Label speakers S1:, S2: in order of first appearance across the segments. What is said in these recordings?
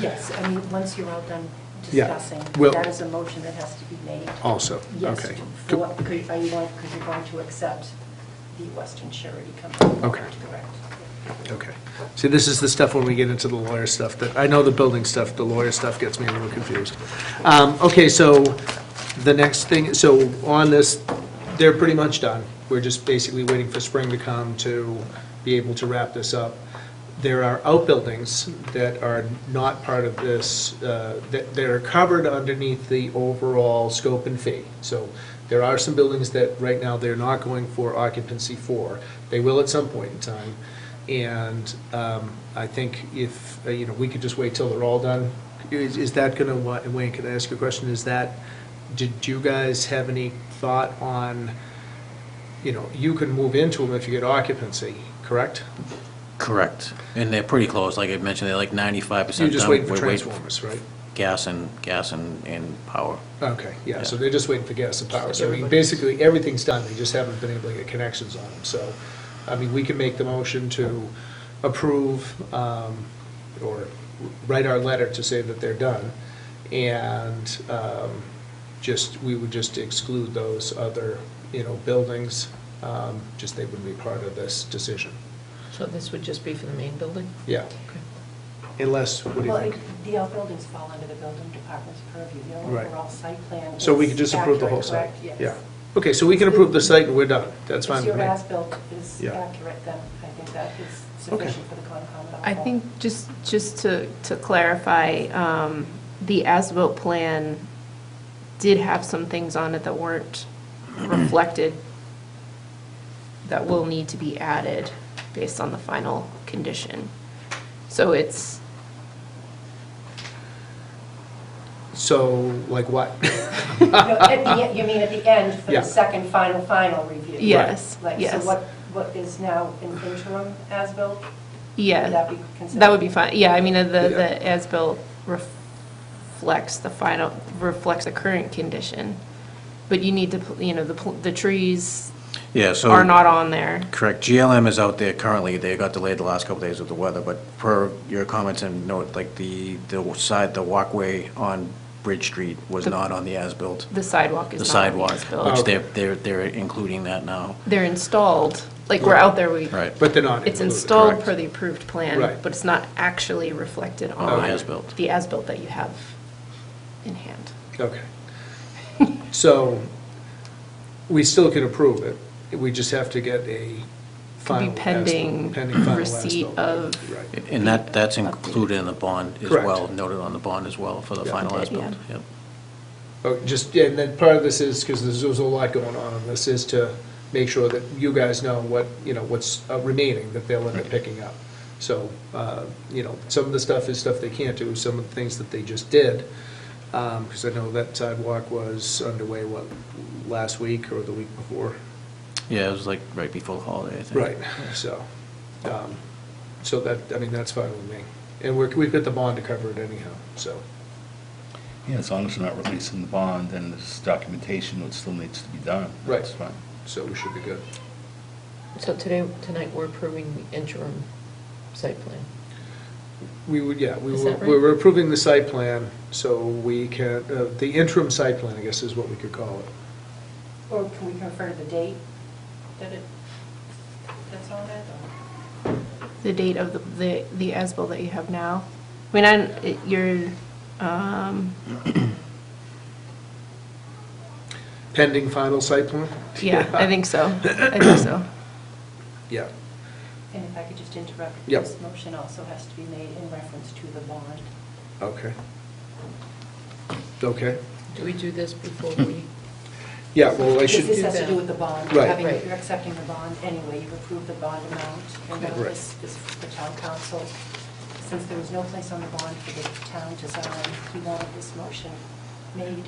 S1: Yes, I mean, once you're all done
S2: Yeah,
S1: discussing,
S2: well-
S1: that is a motion that has to be made.
S2: Also,
S1: Yes,
S2: okay.
S1: to- for
S2: Go-
S1: what, could- are you going, because you're going to accept the Western Charity Company.
S2: Okay.
S1: Correct.
S2: Okay. See, this is the stuff when we get into the lawyer stuff that, I know the building stuff, the lawyer stuff gets me a little confused. Um, Okay, so the next thing, so on this, they're pretty much done. We're just basically waiting for spring to come to be able to wrap this up. There are outbuildings that are not part of this, uh, that, that are covered underneath the overall scope and fee. So there are some buildings that right now they're not going for occupancy for. They will at some point in time. And um, I think if, uh, you know, we could just wait till they're all done. Is, is that gonna, wa- Wayne, can I ask you a question? Is that, did you guys have any thought on, you know, you can move into them if you get occupancy, correct?
S3: Correct. And they're pretty close, like I mentioned, they're like ninety-five percent
S2: You're
S3: done.
S2: just waiting for
S3: We're
S2: transformers, right?
S3: Gas and, gas and, and power.
S2: Okay, yeah, so
S3: Yeah.
S2: they're just waiting for gas and power. So I mean, basically, everything's done, they just haven't been able to get connections on them. So, I mean, we can make the motion to approve um, or write our letter to say that they're done. And um, just, we would just exclude those other, you know, buildings, um, just they wouldn't be part of this decision.
S4: So this would just be for the main building?
S2: Yeah,
S4: Okay.
S2: unless, what do you
S1: Well,
S2: think?
S1: it- the outbuildings fall under the building department's purview. Their
S2: Right.
S1: overall site plan
S2: So we
S1: is
S2: could just approve the whole
S1: accurate,
S2: site?
S1: correct?
S2: Yeah.
S1: Yes.
S2: Okay, so we can approve the site and we're done, that's fine
S1: If
S2: with me.
S1: your as-built is
S2: Yeah.
S1: accurate, then I think that is
S2: Okay.
S1: sufficient for the Concom. to
S5: I
S1: uphold.
S5: think, just, just to, to clarify, um, the as-built plan did have some things on it that weren't reflected that will need to be added based on the final condition. So it's,
S2: So, like what?
S1: No, at the end- You mean at the end for
S2: Yeah.
S1: the second, final, final review?
S5: yes,
S1: Like, so
S5: yes,
S1: what, what is now an interim as-built? Would that
S5: yeah.
S1: be considered?
S5: That would be fine, yeah, I mean, uh, the,
S2: Yeah.
S5: the as-built reflects the final, reflects the current condition. But you need to, pl- you know, the, pl- the trees
S3: Yeah, so.
S5: are not on there.
S3: Correct. GLM is out there currently. They got delayed the last couple days with the weather, but per your comments and note, like the, the side, the walkway on Bridge Street was
S5: The-
S3: not on the as-built.
S5: The sidewalk
S3: The
S5: is not on the
S3: sidewalk,
S5: as-built.
S2: Oh.
S3: which they're, they're, they're including that now.
S5: They're installed, like, we're out there, we.
S3: Right.
S2: But they're not
S5: It's
S2: included,
S5: installed
S3: correct.
S5: per the approved plan,
S2: Right.
S5: but it's not actually reflected
S3: On
S5: on.
S3: the as-built.
S5: The as-built that you have in hand.
S2: Okay. So, we still can approve it, we just have to get a final. as-
S5: pending
S2: pending final
S5: receipt
S2: as-built.
S5: of-
S2: Right.
S3: And that, that's included in the bond as
S2: Correct.
S3: well, noted on the bond as well for the
S2: Yeah.
S3: final
S5: Yeah.
S3: as-built. Yep.
S2: Oh, Just, yeah, and then part of this is, because there's there's a lot going on, on this is to make sure that you guys know what, you know, what's uh, remaining that they'll end up picking up. So, uh, you know, some of the stuff is stuff they can't do, some of the things that they just did, because I know that sidewalk was underway, what, last week or the week before?
S3: Yeah, it was like right before the holiday, I think.
S2: Right, so, um, so that, I mean, that's fine with me. And we're, we've got the bond to cover it anyhow, so,
S6: Yeah, as long as you're not releasing the bond, then there's documentation that still needs to be done.
S2: Right.
S6: That's fine.
S2: so we should be good.
S4: So today, tonight, we're approving the interim site plan.
S2: We would, yeah, we
S4: Is
S2: were,
S4: that right?
S2: we were approving the site plan, so we can, uh, the interim site plan, I guess is what we could call it.
S1: Or can we refer to the date that it, that's on it? or-
S5: The date of the, the, the as-built that you have now. I mean, I, it- you're, um,
S2: Pending final site plan?
S5: yeah, I think so, I think so.
S2: Yeah,
S1: And if I could just interrupt,
S2: Yep.
S1: this motion also has to be made in reference to the bond.
S2: okay. Okay,
S4: Do we do this before we?
S2: yeah, well, I
S1: Because
S2: should,
S1: this has to do with the bond.
S2: Right.
S1: Having-
S4: Right.
S1: You're accepting the bond anyway, you've approved the bond amount, and now
S2: Right.
S1: this is for the town council. Since there was no place on the bond for the town to sign, he wanted this motion made.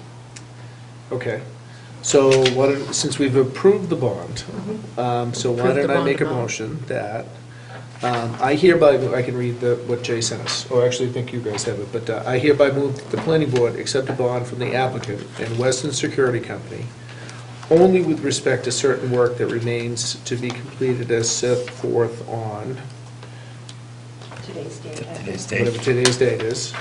S2: okay. So what, since we've approved the bond, um, so why
S4: Approve Mm-hmm. the
S2: don't I
S4: bond
S2: make a
S4: amount.
S2: motion that, um, I hereby, I can read the, what Jay sent us, or actually, I think you guys have it, but uh, I hereby move that the planning board accept a bond from the applicant and Weston Security Company only with respect to certain work that remains to be completed as set forth on
S1: Today's date. I think.
S6: Today's date.
S2: whatever today's date is,